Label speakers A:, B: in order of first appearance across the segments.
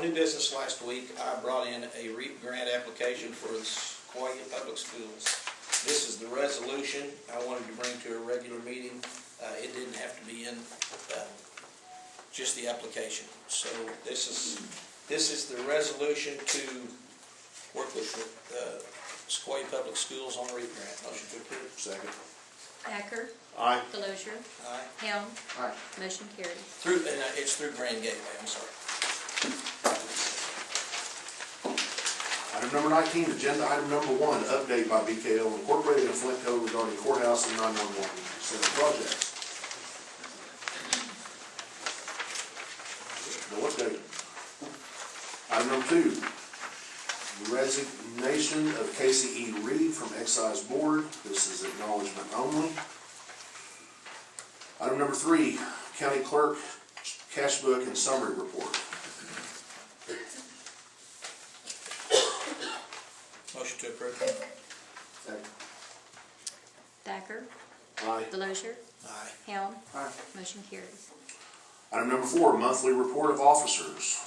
A: New business last week, I brought in a REAP grant application for the Sequoia Public Schools. This is the resolution I wanted to bring to a regular meeting. Uh, it didn't have to be in, uh, just the application. So this is, this is the resolution to work with, uh, Sequoia Public Schools on REAP grant. Motion to approve.
B: Second.
C: Thacker,
B: Aye.
C: Delosier,
A: Aye.
C: Helm,
B: Aye.
C: motion carries.
A: Through, and uh, it's through Grand Gateway, I'm sorry.
B: Item number nineteen, agenda item number one, update by BKL Incorporated and Flint Code regarding courthouse and nine-one-one center projects. No update. Item number two, resignation of Casey E. Reed from Excise Board. This is acknowledgement only. Item number three, county clerk, cash book and summary report.
A: Motion to approve.
B: Second.
C: Thacker,
B: Aye.
C: Delosier,
A: Aye.
C: Helm,
B: Aye.
C: motion carries.
B: Item number four, monthly report of officers.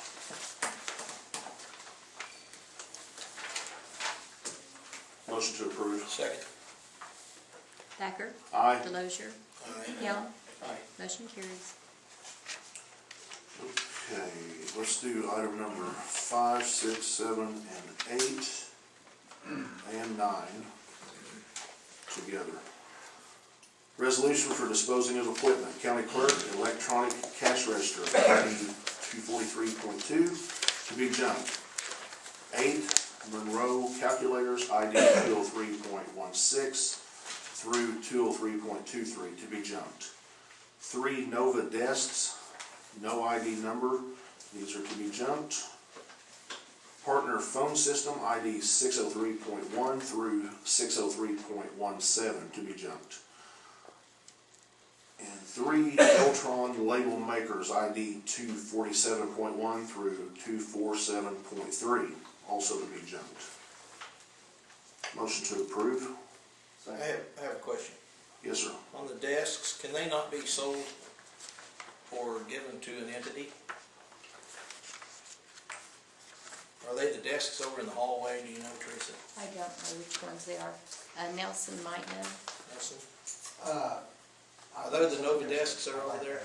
B: Motion to approve.
A: Second.
C: Thacker,
B: Aye.
C: Delosier,
A: Aye.
C: Helm,
A: Aye.
C: motion carries.
B: Okay, let's do item number five, six, seven, and eight, and nine together. Resolution for disposing of equipment, county clerk, electronic cash register, two forty-three point two, to be junked. Eight, Monroe calculators, ID two oh three point one six through two oh three point two three, to be junked. Three Nova desks, no ID number, these are to be jumped. Partner phone system ID six oh three point one through six oh three point one seven to be jumped. And three Eltron label makers ID two forty-seven point one through two four seven point three, also to be jumped. Motion to approve?
A: I have, I have a question.
B: Yes, sir.
A: on the desks, can they not be sold or given to an entity? Are they the desks over in the hallway, do you know, Teresa
C: I don't know which ones they are. Uh, Nelson might know.
A: Nelson? Uh, Are they the Nova desks that are over there?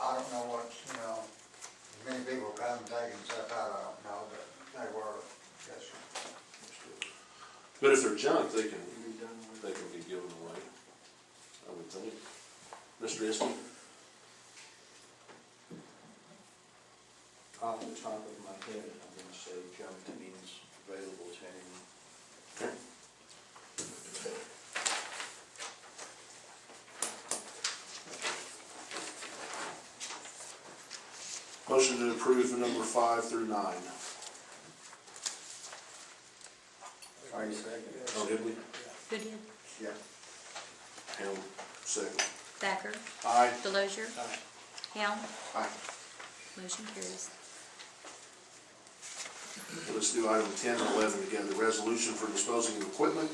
D: I don't know what, you know, many people come taking stuff out, I don't know, but they were, yes, sir.
B: But if they're junk, they can, they can be given away, I would think. Mr. Iskey?
E: off the top of my head, I'm gonna say junked means available to anyone.
B: Motion to approve the number five through nine.
E: Are you second?
B: Oh, did we?
C: Who did?
E: Yeah.
B: Hell, second.
C: Thacker,
B: Aye.
C: Delosier,
A: Aye.
C: Helm,
B: Aye.
C: motion carries.
B: Let's do item ten and eleven together, resolution for disposing of equipment.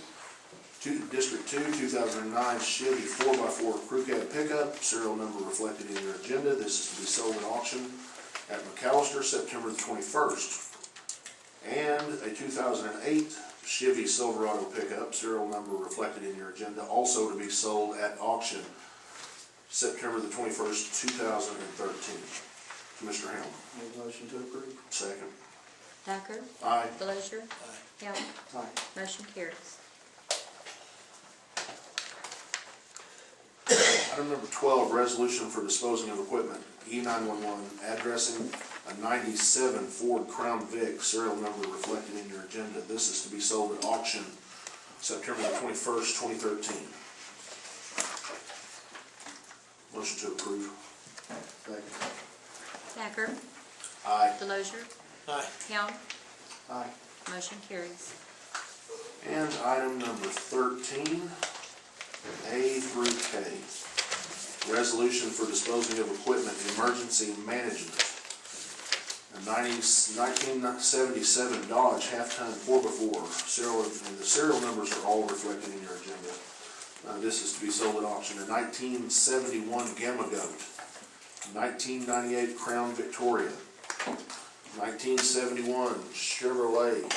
B: Two, District Two, two thousand and nine Chevy four x four crew cab pickup, serial number reflected in your agenda. This is to be sold at auction at McAllister, September the twenty-first. And a two thousand and eight Chevy Silverado pickup, serial number reflected in your agenda, also to be sold at auction September the twenty-first, two thousand and thirteen. Commissioner Hamlin,
E: Make motion to approve?
B: second.
C: Thacker,
B: Aye.
C: Delosier, Helm,
E: Aye.
C: motion carries.
B: Item number twelve, resolution for disposing of equipment, E nine-one-one, addressing a ninety-seven Ford Crown Vic, serial number reflected in your agenda. This is to be sold at auction September twenty-first, twenty thirteen. Motion to approve.
E: Second.
C: Thacker,
B: Aye.
C: Delosier,
A: Aye.
C: Helm,
E: Aye.
C: motion carries.
B: And item number thirteen, A through K. Resolution for disposing of equipment, emergency management. A 90 1977 Dodge half-ton four before, serial, and the serial numbers are all reflected in your agenda. Uh, this is to be sold at auction, a nineteen seventy-one Gamma Goat, nineteen ninety-eight Crown Victoria, nineteen seventy-one Chevrolet